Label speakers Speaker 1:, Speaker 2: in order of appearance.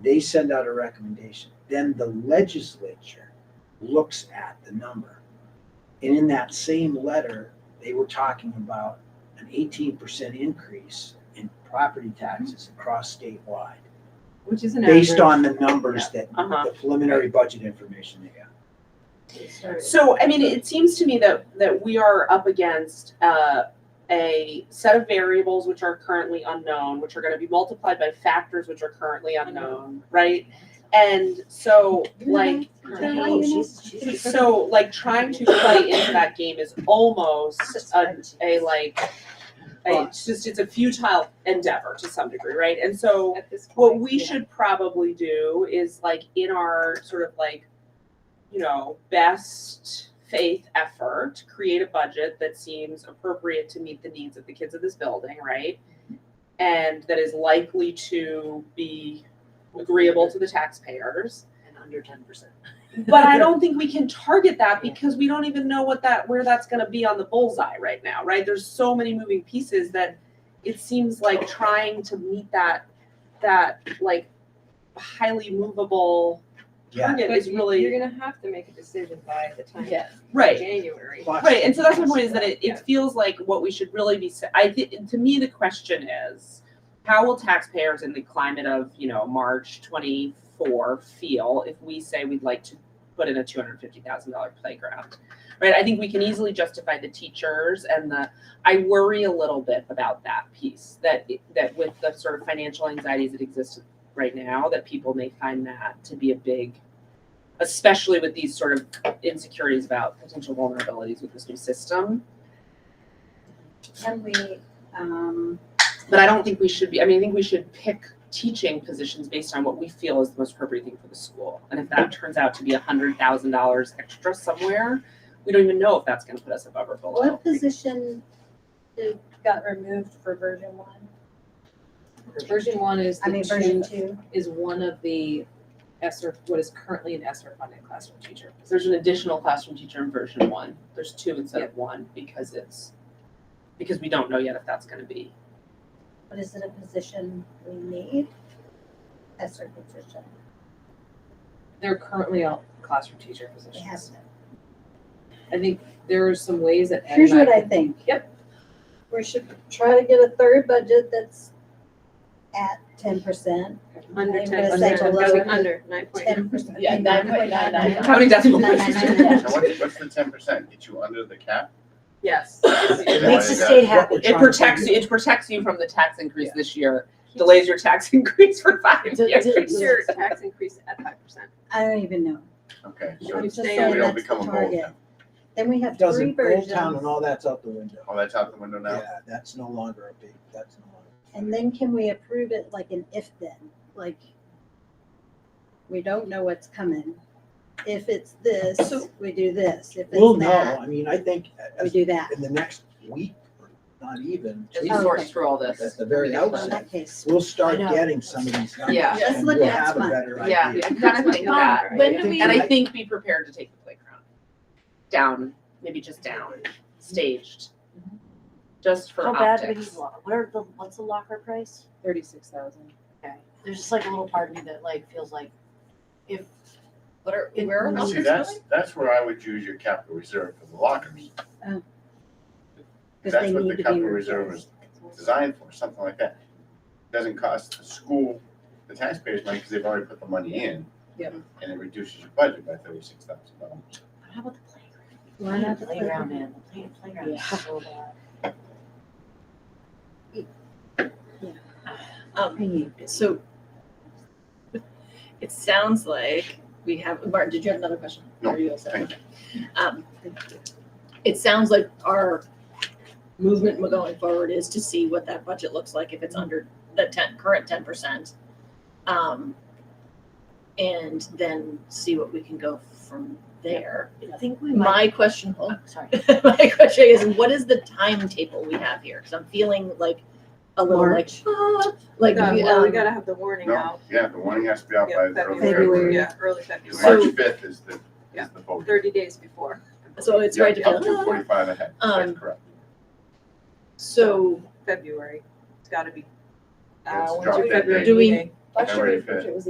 Speaker 1: They send out a recommendation. Then the legislature looks at the number. And in that same letter, they were talking about an eighteen percent increase in property taxes across statewide.
Speaker 2: which is an average.
Speaker 1: Based on the numbers that
Speaker 3: Uh-huh.
Speaker 1: the preliminary budget information they got.
Speaker 3: So, I mean, it seems to me that, that we are up against, uh, a set of variables which are currently unknown, which are gonna be multiplied by factors which are currently unknown, right? And so, like, so, like, trying to play into that game is almost a, a like, a- it's just, it's a futile endeavor to some degree, right? And so,
Speaker 2: At this point.
Speaker 3: what we
Speaker 2: yeah.
Speaker 3: should probably do is like in our sort of like you know best faith effort create a budget that seems appropriate to meet the needs of the kids of this building right and that is likely to be agreeable to the taxpayers
Speaker 4: And under ten percent.
Speaker 3: but I don't think we can target that because we don't even know what that where that's going to be on the bullseye right now, right? There's so many moving pieces that it seems like trying to meet that that like highly movable
Speaker 1: Yeah,
Speaker 3: target
Speaker 2: But
Speaker 3: is
Speaker 2: you-
Speaker 3: really
Speaker 2: You're gonna have to make a decision by the time.
Speaker 4: Yeah.
Speaker 3: right.
Speaker 2: January.
Speaker 1: Clock.
Speaker 3: Right, and so that's my point is that it,
Speaker 2: Yeah.
Speaker 3: it feels like what we should really be, sa- I think, to me, the question is, how will taxpayers in the climate of, you know, March twenty-four feel if we say we'd like to put in a two hundred fifty thousand dollar playground? Right, I think we can easily justify the teachers and the, I worry a little bit about that piece, that, that with the sort of financial anxieties that exist right now, that people may find that to be a big, especially with these sort of insecurities about potential vulnerabilities with this new system.
Speaker 5: Can we, um,
Speaker 3: But I don't think we should be, I mean, I think we should pick teaching positions based on what we feel is the most appropriate thing for the school. And if that turns out to be a hundred thousand dollars extra somewhere, we don't even know if that's gonna put us above or below.
Speaker 5: what position did- got removed for version one?
Speaker 4: Version one is
Speaker 5: I
Speaker 4: the
Speaker 5: mean, version
Speaker 4: two,
Speaker 5: two?
Speaker 4: is one of the ESER, what is currently an ESER funded classroom teacher.
Speaker 3: So There's an additional classroom teacher in version one. There's two instead of one because it's, because we don't know yet if that's gonna be.
Speaker 5: But is it a position we need? That's our position.
Speaker 4: They're currently a classroom teacher
Speaker 5: It
Speaker 4: position.
Speaker 5: has to.
Speaker 4: I think there are some ways that Ed
Speaker 5: Here's
Speaker 4: and I
Speaker 5: what I
Speaker 4: can-
Speaker 5: think.
Speaker 4: Yep.
Speaker 5: We should try to get a third budget that's at ten percent.
Speaker 2: Under
Speaker 5: I'm
Speaker 2: ten
Speaker 5: gonna
Speaker 4: say
Speaker 2: percent,
Speaker 4: below.
Speaker 2: going under nine point nine.
Speaker 5: Ten percent.
Speaker 4: Yeah, nine point nine nine nine.
Speaker 3: How many decimal
Speaker 5: Nine,
Speaker 3: places?
Speaker 5: nine, nine,
Speaker 6: So what, what's the ten percent? Get you under the cap?
Speaker 3: Yes.
Speaker 6: Is that
Speaker 5: Makes
Speaker 6: what
Speaker 5: the
Speaker 6: it does?
Speaker 5: state happy.
Speaker 3: It protects, you. it protects you from the tax increase this year, delays your tax increase for five
Speaker 4: Did-
Speaker 3: years.
Speaker 4: did-
Speaker 2: Keeps your tax increase at five percent.
Speaker 5: I don't even know.
Speaker 6: Okay,
Speaker 5: I'm
Speaker 6: so
Speaker 5: just
Speaker 2: saying
Speaker 5: saying
Speaker 6: we
Speaker 5: that's
Speaker 6: don't
Speaker 5: the
Speaker 6: become a gold
Speaker 5: target.
Speaker 6: town.
Speaker 5: Then we have three
Speaker 1: Doesn't, Old
Speaker 5: versions.
Speaker 1: Town and all that's out the window.
Speaker 6: Oh, that's out the window now?
Speaker 1: Yeah, that's no longer a big, that's no longer.
Speaker 5: And then can we approve it like an if then, like, we don't know what's coming. If it's this,
Speaker 2: So-
Speaker 5: we do this, if
Speaker 1: Well,
Speaker 5: it's
Speaker 1: no,
Speaker 5: that,
Speaker 1: I mean, I think uh,
Speaker 5: we do that.
Speaker 1: in the next week, or not even,
Speaker 3: Just
Speaker 5: Okay.
Speaker 3: sort through all this.
Speaker 1: at the very
Speaker 5: Well, in
Speaker 1: outset,
Speaker 5: that case,
Speaker 1: we'll start
Speaker 5: I know.
Speaker 1: getting some of these numbers.
Speaker 3: Yeah.
Speaker 5: Let's
Speaker 1: and
Speaker 5: look
Speaker 1: we'll
Speaker 5: at
Speaker 1: have a
Speaker 5: some.
Speaker 1: better
Speaker 3: Yeah,
Speaker 1: idea.
Speaker 3: I kind of think that.
Speaker 1: When do we-
Speaker 3: And I think be prepared to take the playground down, maybe just down, staged. Just for
Speaker 7: How bad would you
Speaker 3: optics.
Speaker 7: want, what are the, what's the locker price?
Speaker 4: Thirty-six thousand.
Speaker 7: There's just like a little part of me that like feels like if,
Speaker 4: What are,
Speaker 7: It-
Speaker 4: where are
Speaker 7: Mm.
Speaker 6: Now,
Speaker 4: lockers
Speaker 6: See,
Speaker 4: going?
Speaker 6: that's, that's where I would use your capital reserve for the lockers.
Speaker 5: cause they
Speaker 6: That's what
Speaker 5: need
Speaker 6: the
Speaker 5: to be
Speaker 6: capital reserve
Speaker 5: replaced.
Speaker 6: is designed for, something like that. Doesn't cost the school, the taxpayers money, because they've already put the money in.
Speaker 4: Yep.
Speaker 6: And it reduces your budget by thirty-six thousand dollars.
Speaker 7: how about the playground?
Speaker 5: Why not the
Speaker 7: Playground, man, the play- playground is so bad.
Speaker 8: Um,
Speaker 5: playground?
Speaker 8: so it sounds like we have, Martin, did you have another question?
Speaker 6: No,
Speaker 8: Or you all set?
Speaker 6: thank
Speaker 8: Um, it sounds like our movement going forward is to see what that budget looks like if it's under the ten, current ten percent. Um, and then see what we can go from there.
Speaker 7: I think we might,
Speaker 8: My question, hold
Speaker 7: oh, sorry.
Speaker 8: my question is, what is the timetable we have here? Because I'm feeling like a little like, ah, like,
Speaker 2: Yeah,
Speaker 8: we,
Speaker 2: well, we
Speaker 8: um,
Speaker 2: gotta have the warning
Speaker 6: No,
Speaker 2: out.
Speaker 6: yeah, the warning has to be out by
Speaker 2: Yeah,
Speaker 6: the early
Speaker 5: February.
Speaker 6: February.
Speaker 2: Yeah, early February,
Speaker 8: So-
Speaker 6: March fifth is the,
Speaker 2: Yeah.
Speaker 6: is the vote.
Speaker 2: thirty days before.
Speaker 8: so it's right to
Speaker 6: Yeah, Up
Speaker 8: feel,
Speaker 6: to forty-five ahead,
Speaker 8: Um,
Speaker 6: that's correct.
Speaker 8: So
Speaker 2: February, it's gotta be.
Speaker 6: It's
Speaker 2: Uh,
Speaker 6: drop
Speaker 2: when's your
Speaker 6: dead
Speaker 2: February
Speaker 8: date. Do we-
Speaker 2: meeting?
Speaker 4: Last year
Speaker 6: February
Speaker 4: we-
Speaker 6: fifth.
Speaker 4: it was